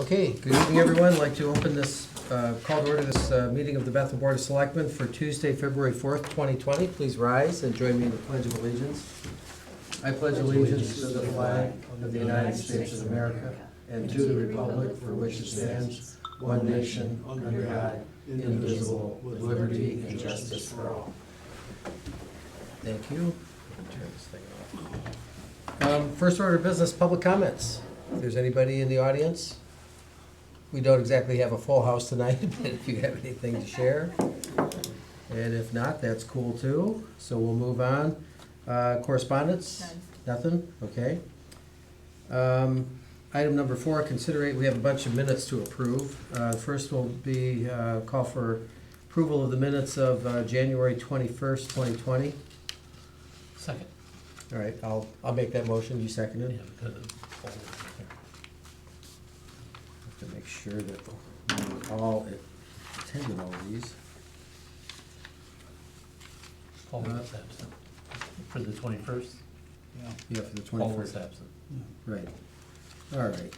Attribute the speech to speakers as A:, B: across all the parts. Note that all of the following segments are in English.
A: Okay, good evening, everyone. I'd like to open this, uh, call to order this uh, meeting of the Bethel Board of Selectmen for Tuesday, February 4th, 2020. Please rise and join me in the Pledge of Allegiance. I pledge allegiance to the flag of the United States of America and to the republic for which it stands, one nation, under God, indivisible, with liberty and justice for all. Thank you. Turn this thing off. Um, First order of business, public comments. If there's anybody in the audience, we don't exactly have a full house tonight, but if you have anything to share. And if not, that's cool too. So we'll move on. Uh, Correspondence? Nothing? Okay. Um, Item number four, considerate, we have a bunch of minutes to approve. Uh, First will be uh, call for approval of the minutes of uh, January 21st, 2020.
B: Second.
A: All right, I'll, I'll make that motion. You seconded?
B: Yeah, because of all of it.
A: Have to make sure that we all attended all of these.
B: Paul was
C: Uh,
B: absent. For the twenty-first?
A: Yeah, for the
B: Paul was
A: twenty-first,
B: absent.
A: right. All right.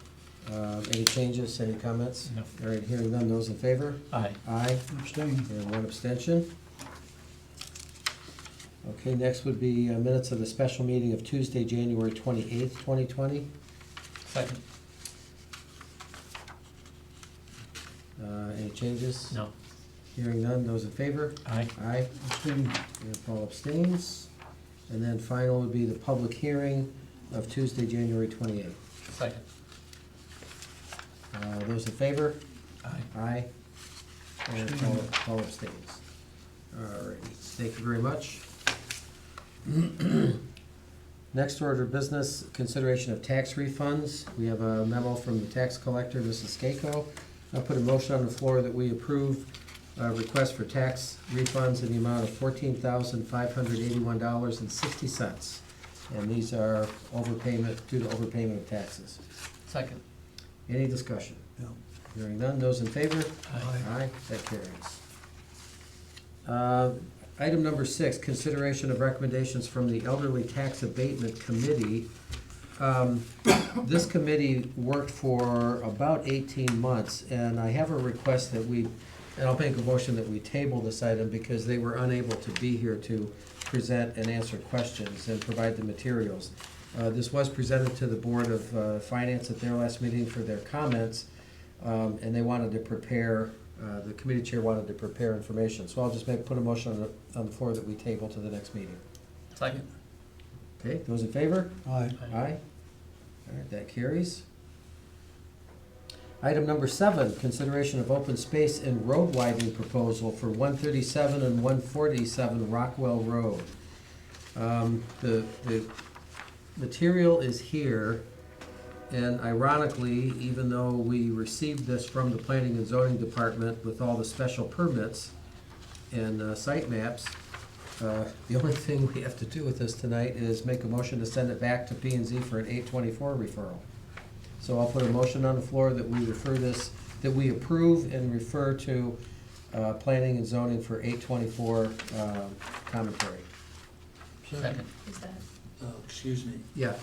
A: Um, Any changes, any comments?
B: No.
A: All right, hearing none, those in favor?
B: Aye.
A: Aye,
C: Abstain.
A: and one abstention. Okay, next would be uh, minutes of the special meeting of Tuesday, January twenty-eighth, twenty twenty.
B: Second.
A: Uh, Any changes?
B: No.
A: Hearing none, those in favor?
B: Aye.
A: Aye.
C: Abstain.
A: And Paul abstains. And then final would be the public hearing of Tuesday, January twenty-eighth.
B: Second.
A: Uh, Those in favor?
B: Aye.
A: Aye. And Paul Paul abstains. All righty, thank you very much. Next order of business, consideration of tax refunds. We have a memo from the tax collector, Mrs. Skako. I'll put a motion on the floor that we approve a request for tax refunds in the amount of fourteen thousand five hundred eighty-one dollars and sixty cents. And these are overpayment, due to overpayment of taxes.
B: Second.
A: Any discussion?
C: No.
A: Hearing none, those in favor?
B: Aye.
A: Aye, that carries. Uh, Item number six, consideration of recommendations from the Elderly Tax Abatement Committee. Um, This committee worked for about eighteen months, and I have a request that we, and I'll make a motion that we table this item because they were unable to be here to present and answer questions and provide the materials. Uh, This was presented to the Board of uh, Finance at their last meeting for their comments, um, and they wanted to prepare, uh, the committee chair wanted to prepare information. So I'll just make, put a motion on the, on the floor that we table to the next meeting.
B: Second.
A: Okay, those in favor?
C: Aye.
A: Aye. All right, that carries. Item number seven, consideration of open space and road widening proposal for one thirty-seven and one forty-seven Rockwell Road. Um, the, the material is here, and ironically, even though we received this from the planning and zoning department with all the special permits and, uh, site maps, uh, The only thing we have to do with this tonight is make a motion to send it back to P and Z for an eight twenty-four referral. So I'll put a motion on the floor that we refer this, that we approve and refer to uh, planning and zoning for eight twenty-four uh, commentary.
B: Second.
D: Is that,
C: Uh, Excuse me.
A: Yeah.
C: Uh,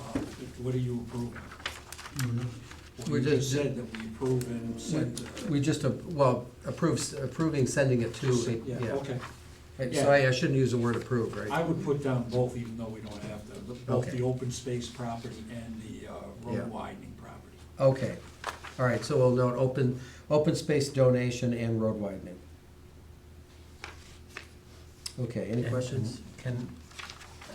C: What are you approving?
A: We're
C: Well, you just
A: just-
C: said that we approve and send. uh,
A: We just, uh, well, approves, approving sending it to,
C: Yeah,
A: yeah.
C: okay.
A: And So I I shouldn't use the word approve,
C: I
A: right?
C: would put down both, even though we don't have to, but both
A: Okay.
C: the open space property and the uh,
A: Yeah.
C: road widening property.
A: Okay, all right, so we'll note open, open space donation and road widening. Okay, any
B: And-
A: questions?
B: and Can,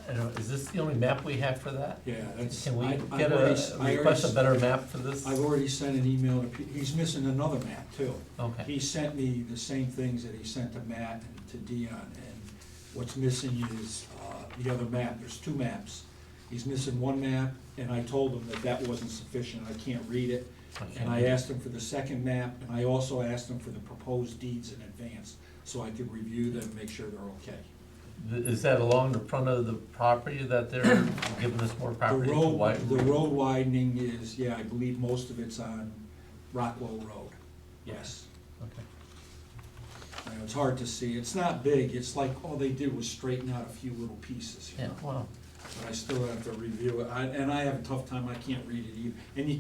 B: I don't know, is this the only map we have for that?
C: Yeah, that's.
B: Can
C: I-
B: we
C: I've
B: get
C: already
B: a,
C: s- I already
B: request a
C: s-
B: better map for this?
C: I've already sent an email to, Pete. he's missing another map too.
B: Okay.
C: He sent me the same things that he sent to Matt and to Dion, and what's missing is, uh, the other map, there's two maps. He's missing one map, and I told him that that wasn't sufficient, I can't read it. And I asked him for the second map, and I also asked him for the proposed deeds in advance, so I could review them, and make sure they're okay.
B: Th- Is that along the front of the property that they're giving us more
C: The
B: property to
C: road,
B: widen?
C: the road widening is, yeah, I believe most of it's on Rockwell Road, yes.
B: Okay.
C: You know, it's hard to see, it's not big, it's like, all they did was straighten out a few little pieces, you
B: Yeah,
C: know?
B: wow.
C: But I still have to review it, I- and I have a tough time, I can't read it either, and you